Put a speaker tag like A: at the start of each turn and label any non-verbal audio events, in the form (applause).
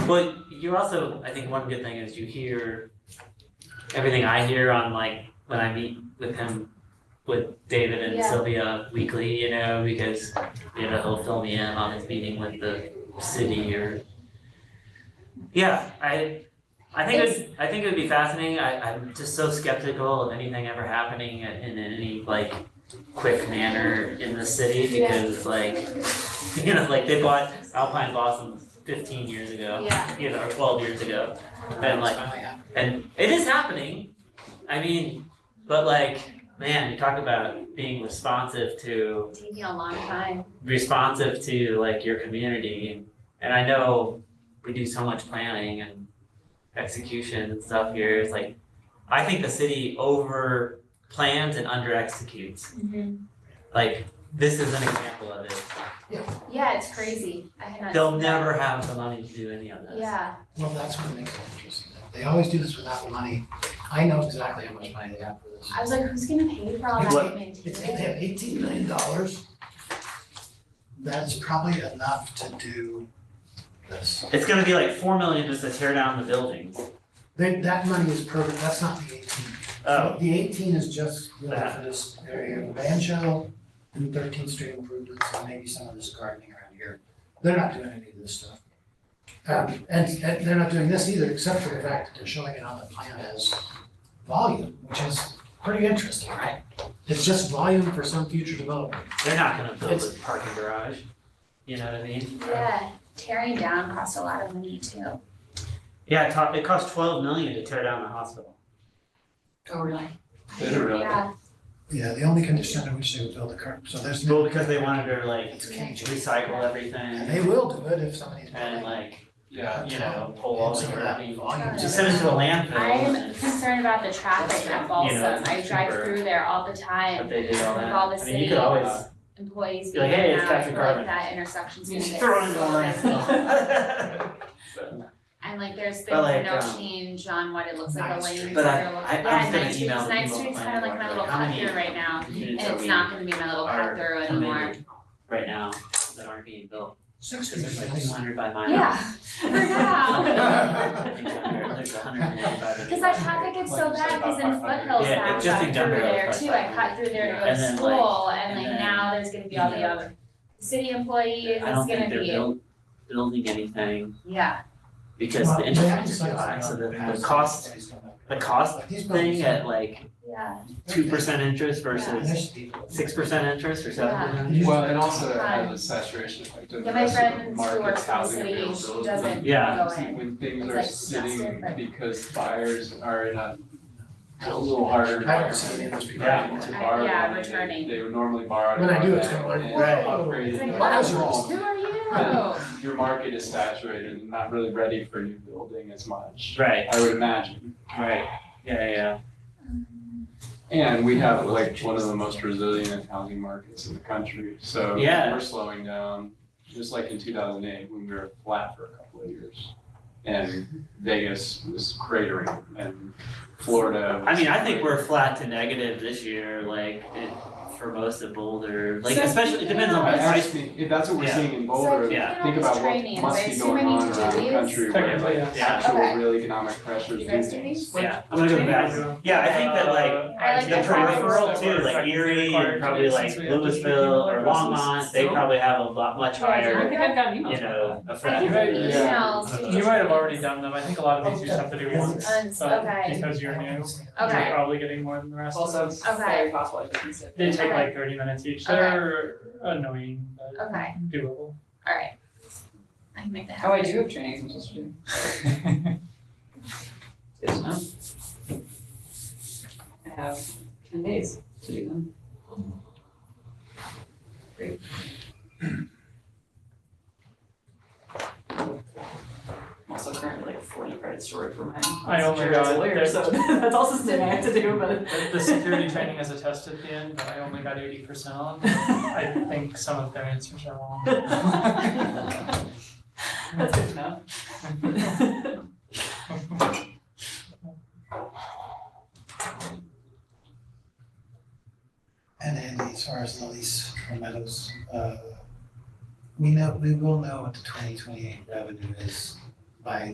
A: But you're also, I think one good thing is you hear everything I hear on like when I meet with him with David and
B: Yeah.
A: Sylvia weekly, you know, because you know, he'll fill me in on his meeting with the city or Yeah, I I think it's, I think it would be fascinating. I I'm just so skeptical of anything ever happening in any like quick manner in the city
B: Yeah.
A: because like (laughs) you know, like they bought Alpine Blossom fifteen years ago,
B: Yeah.
A: you know, or twelve years ago. And like
C: Oh, yeah.
A: and it is happening. I mean, but like, man, you talk about being responsive to
B: Taking a long time.
A: responsive to like your community. And I know we do so much planning and execution and stuff here. It's like I think the city over plans and under executes. Like this is an example of it.
B: Yeah, it's crazy. I had not.
A: They'll
B: seen that.
A: never have the money to do any of this.
B: Yeah,
C: Well, that's what makes it interesting. They always do this without money. I know exactly how much money they have for this.
B: I was like, who's gonna pay for all that
C: Look,
B: and maintain
C: It's,
B: it?
C: they have eighteen million dollars. That's probably enough to do this.
A: It's gonna be like four million just to tear down the buildings.
C: They, that money is perfect, that's not the eighteen.
A: Oh,
C: The eighteen is just really
A: Ah.
C: for this area of Banjo and Thirteenth Street improvements and maybe some of this gardening around here. They're not doing any of this stuff. Um, and, and they're not doing this either, except for the fact that they're showing it on the plan as volume, which is pretty interesting, right? It's just volume for some future development.
A: They're not gonna build a parking garage. You know what I mean?
B: Yeah, tearing down costs a lot of money too.
A: Yeah, it cost, it cost twelve million to tear down the hospital.
C: Oh, really?
D: Literally.
B: Yeah,
C: Yeah, the only condition in which they would build a car, so there's no.
A: Well, because they wanted to like
C: It's cagey.
A: recycle
C: And
A: everything
C: they will do it if somebody's.
A: and like,
D: Yeah.
A: you know, pull all the crappy.
C: Volume.
A: Just send it to a landfill
B: I'm
A: and,
B: concerned about the traffic at
A: You
B: Balsam.
A: know, it's
B: I drive
A: cheaper.
B: through there all the
A: but
B: time.
A: they did all
B: With
A: that.
B: all the
A: I mean, you could
B: city.
A: always,
B: Employees
A: Be like,
B: being
A: "Hey, it's
B: out,
A: Captain Carmen."
B: like that intersection's
A: you
B: gonna
A: just
B: get
A: throw it in the
B: so busy.
A: landfill.
B: (laughs) And like, there's
A: But,
B: been no
A: like, um,
B: change on what it looks like, the
C: Ninth
B: lanes
C: Street.
A: But I-
B: that are look-
A: I- I'm
B: Yeah,
A: just gonna
B: Ninth Street,
A: email
B: 'cause Ninth
A: people
B: Street's
A: and
B: kind of like
A: like,
B: my little
A: how
B: cut
A: many-
B: through right now,
A: Units
B: and
A: that
B: it's
A: we
B: not gonna be my little
A: are
B: cut through
A: committed
B: anymore.
A: Right now, that aren't being built,
C: Six
A: cause there's like two hundred by mile.
B: Yeah, (laughs) for now.
A: (laughs) I think there- there's a hundred and eighty-five. in
B: Cause that traffic gets so bad, cause in Foothills
A: Yeah,
B: now, I
A: it's just
B: cut
A: in
B: through
A: Denver,
B: there
A: it's
B: too,
A: like
B: I cut through there to go
A: And
B: to
A: then, like-
B: school, and
A: and
B: like
A: then,
B: now there's gonna be all the
A: you know,
B: other city employees, it's
A: I don't
B: gonna
A: think they're
B: be,
A: built, building anything
B: yeah,
A: because
C: Well,
A: the
C: they
A: interest
C: have
A: is too
C: sites
A: high, so the,
C: that have
A: the cost,
C: sites that have-
A: the cost
C: Like these buildings
A: thing
C: have-
A: at like
B: yeah,
A: two percent interest versus six percent interest or seven
B: Yeah.
A: percent.
D: Well, and also it has a saturation effect of the
B: yeah, my
D: rest of the
B: friend who works
D: markets,
B: for the
D: housing
B: city,
D: availability.
B: she doesn't go in.
A: Yeah.
D: When things
B: It's
D: are
B: like
D: sitting
B: exhausted, but-
D: because buyers are in a a little harder
C: I haven't seen any of
D: environment
C: those
D: to
C: people.
D: borrow
B: Yeah,
D: money than
B: returning.
D: They would normally borrow. to
C: When I
D: buy
C: do, it's
D: back
C: kinda like,
D: and
C: whoa.
D: upgrade
B: It's
D: it.
B: like,
C: That's
B: what,
C: wrong.
B: who are you?
D: Your market is saturated and not really ready for new building as much,
A: Right,
D: I would imagine.
A: right, yeah, yeah,
D: And we have like one of the most resilient housing markets in the country, so
A: Yeah.
D: we're slowing down, just like in two thousand eight, when we were flat for a couple of years. And Vegas was cratering and Florida.
A: I mean, I think we're flat to negative this year, like, it, for most of Boulder, like,
B: So
A: especially, it depends on
B: speaking
A: the
B: of-
A: price.
D: Ask me, if that's what we're
A: Yeah.
D: seeing in
B: So
D: Boulder,
B: if you
A: Yeah.
B: can
D: think
B: always
D: about
B: train
D: what
B: in,
D: must
B: right?
D: be
B: So
D: going
B: many
D: on
B: to do
D: around the
B: these?
D: country where
A: Technically,
D: like
A: yeah.
B: Okay.
D: actual real economic
B: Do
D: pressures
B: you
D: do
B: guys do
D: things.
B: these?
A: Yeah, I'm gonna go back, yeah, I think that like,
B: Uh, I
A: the
B: like the
A: peripheral too, like Erie, and probably like Louisville or Longmont, they probably have a lot, much
E: I
A: higher,
E: think I've gotten
A: you
E: emails.
A: know,
B: I
A: effect.
B: get
D: Right,
B: the
D: yeah.
B: emails to
F: You might have already done them, I think a lot of these you just have to do once,
B: Uns-
F: but
B: okay.
F: because you're new,
B: Okay.
F: you're probably getting more than the rest of
E: Also,
F: them.
E: it's
B: Okay.
E: very possible I could use it.
F: They take
B: Okay.
F: like thirty minutes each,
B: Okay.
F: they're annoying, but
B: Okay,
F: doable.
B: alright. I can make that
E: Oh, I
B: happen.
E: do have trainings I'm supposed to do. I have ten days to do them. Great. I'm Also currently like forty credits short for my.
F: I only
E: security as a
F: got-
E: lawyer, so (laughs) that's also something I have to do, but.
F: The- The security training is a test at the end, but I only got eighty percent on, I think some of their answers are wrong.
E: (laughs) That's good to know.
C: And Andy, as far as the lease for Meadows, uh, we know, we will know what the twenty twenty-eight revenue is by